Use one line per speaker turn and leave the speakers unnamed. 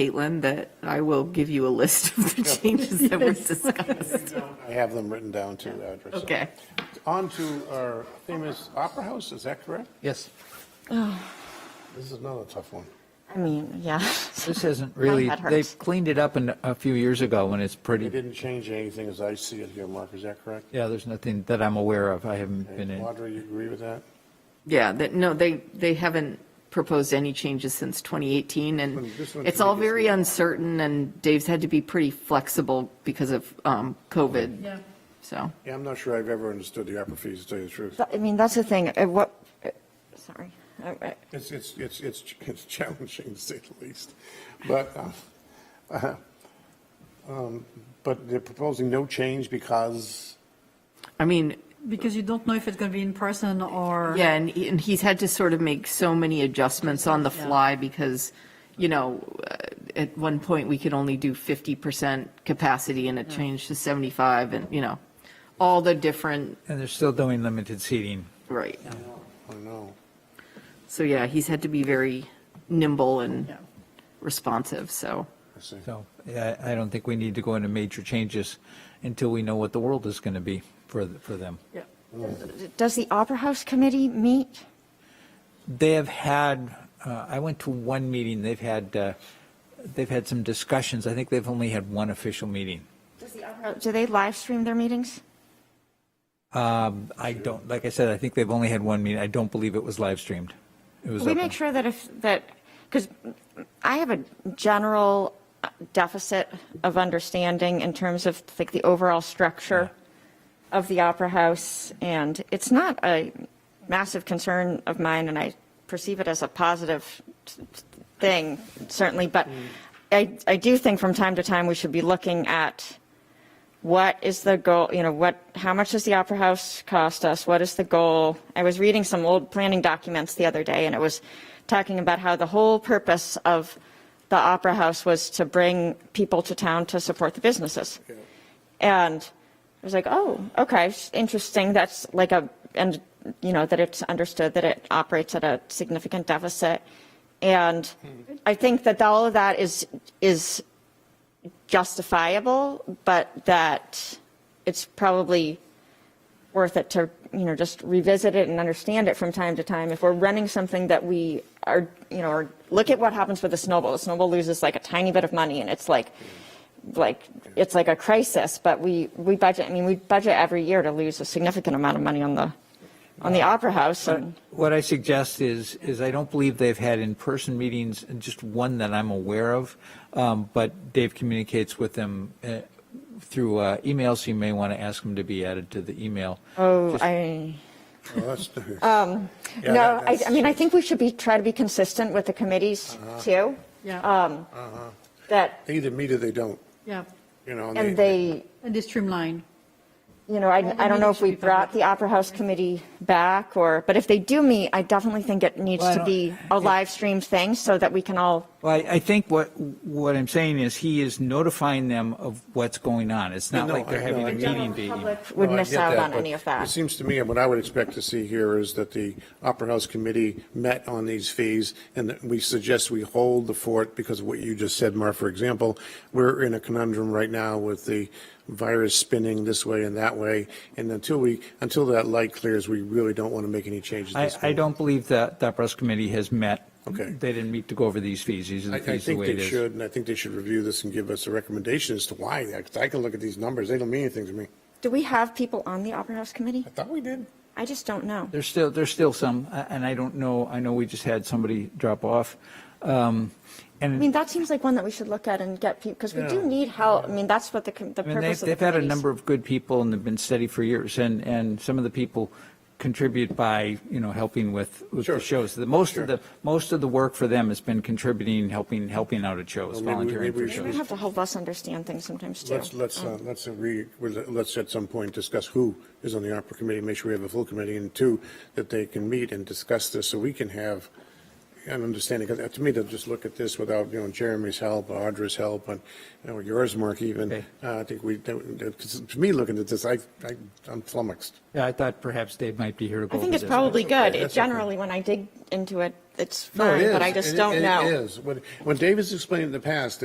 Caitlin, that I will give you a list of the changes that were discussed.
I have them written down too, Audra. so.
Okay.
On to our famous Opera House, is that correct?
Yes,
This is another tough one.
I mean, yeah.
this isn't really,
head hurts.
they've cleaned it up in, a few years ago when it's
They
pretty,
didn't change anything as I see it here, Mark, is that correct?
yeah, there's nothing that I'm aware of. I haven't been in.
Audra, you agree with that?
Yeah, that, no, they, they haven't proposed any changes since 2018,
Well,
and
this one's
it's all
the biggest
very
one.
uncertain, and Dave's had to be pretty flexible because of um, COVID. Yeah. So,
Yeah, I'm not sure I've ever understood the opera fees, to tell you the truth.
But, I mean, that's the thing, uh, what, uh, sorry. Uh, uh,
It's, it's, it's, it's, it's challenging, to say the least. But, uh, uh, um, but they're proposing no change because,
I mean,
Because you don't know if it's going to be in person or.
yeah, and, he- and he's had to sort of make so many adjustments on the
Yeah.
fly because, you know, uh, at one point, we could only do 50% capacity, and it changed to 75, and, you know, all the different,
And they're still doing limited seating.
right.
I don't know.
So, yeah, he's had to be very nimble and
Yeah.
responsive, so.
I see.
So yeah, I I don't think we need to go into major changes until we know what the world is going to be for, th- for them.
Yeah.
Does the Opera House Committee meet?
They have had, uh, I went to one meeting, they've had, uh, they've had some discussions. I think they've only had one official meeting.
Does the Opera- Do they live stream their meetings?
I don't, like I said, I think they've only had one meeting. I don't believe it was live streamed. It was
We
open.
make sure that if, that, because I have a general deficit of understanding in terms of like the overall structure of the Opera House, and it's not a massive concern of mine, and I perceive it as a positive thing, certainly, but I,
Mm.
I do think from time to time, we should be looking at what is the goal, you know, what, how much does the Opera House cost us? What is the goal? I was reading some old planning documents the other day, and it was talking about how the whole purpose of the Opera House was to bring people to town to support the businesses. And I was like, oh, okay, s- interesting. That's like a, and, you know, that it's understood that it operates at a significant deficit. And I think that all of that is, is justifiable, but that it's probably worth it to, you know, just revisit it and understand it from time to time. If we're running something that we are, you know, or look at what happens with the snowball. The snowball loses like a tiny bit of money and it's like, like, it's like a crisis, but we, we budget, I mean, we budget every year to lose a significant amount of money on the, on the Opera House and.
What I suggest is, is I don't believe they've had in-person meetings, and just one that I'm aware of, um, but Dave communicates with them uh, through uh, email, so you may want to ask him to be added to the email.
Oh, I,
Well, that's- Yeah, that-
no, I,
that's- Uh-huh.
I mean, I think we should be, try to be consistent with the committees too.
Yeah.
Um, that
They uh-huh. either meet or they don't,
Yeah.
you know.
And they,
And they streamline.
you know, I, I don't know if we brought the Opera House Committee back or, but if they do meet, I definitely think it needs
Well, I
to be a live stream thing so that we can all,
Well, I I think what, what I'm saying is he is notifying them of what's going on. It's not
No,
like they're
I know,
having
I
a
know.
meeting to email.
would
No, I
miss
get
out
that,
on
but
any of
It
that.
seems to me, and what I would expect to see here is that the Opera House Committee met on these fees, and that we suggest we hold the fort because of what you just said, Mark, for example. We're in a conundrum right now with the virus spinning this way and that way, and until we, until that light clears, we really don't want to make any changes.
I,
this
I
week.
don't believe that the Opera House Committee has met.
Okay.
They didn't meet to go over these fees. These are
I,
the
I
fees the
think
way it
they
is.
should, and I think they should review this and give us a recommendation as to why, because I can look at these numbers, they don't mean anything to me.
Do we have people on the Opera House Committee?
I thought we did.
I just don't know.
There's still, there's still some, a- and I don't know, I know we just had somebody drop off. Um, And
I mean, that seems like one that we should look at and get people, because we do
Yeah.
need help. I mean, that's what the, com- the
I mean, they've,
purpose of the
they've had a
committees.
number of good people and they've been steady for years, and, and some of the people contribute by, you know, helping with, with
Sure.
the shows. The, most
Sure.
of the, most of the work for them has been contributing, helping, helping out at
Well,
shows,
maybe we-
volunteering
maybe
for
we
They
shows.
have to help us understand things sometimes too. Mm.
Let's, let's, uh, let's agree, with- let's at some point discuss who is on the opera committee, make sure we have a full committee, and two, that they can meet and discuss this so we can have an understanding, because to me, to just look at this without, you know, Jeremy's help, Audra's help, and, you know, yours, Mark, even,
Okay.
uh, I think we, because to me, looking at this, I, I, I'm flummoxed.
Yeah, I thought perhaps Dave might be here to go
I
over
think
this.
it's probably
That's okay,
good. It
that's okay.
generally, when I dig into it, it's
No, it
fine, but
is.
I just
It-
don't know.
It is. When, when David's explained in the past,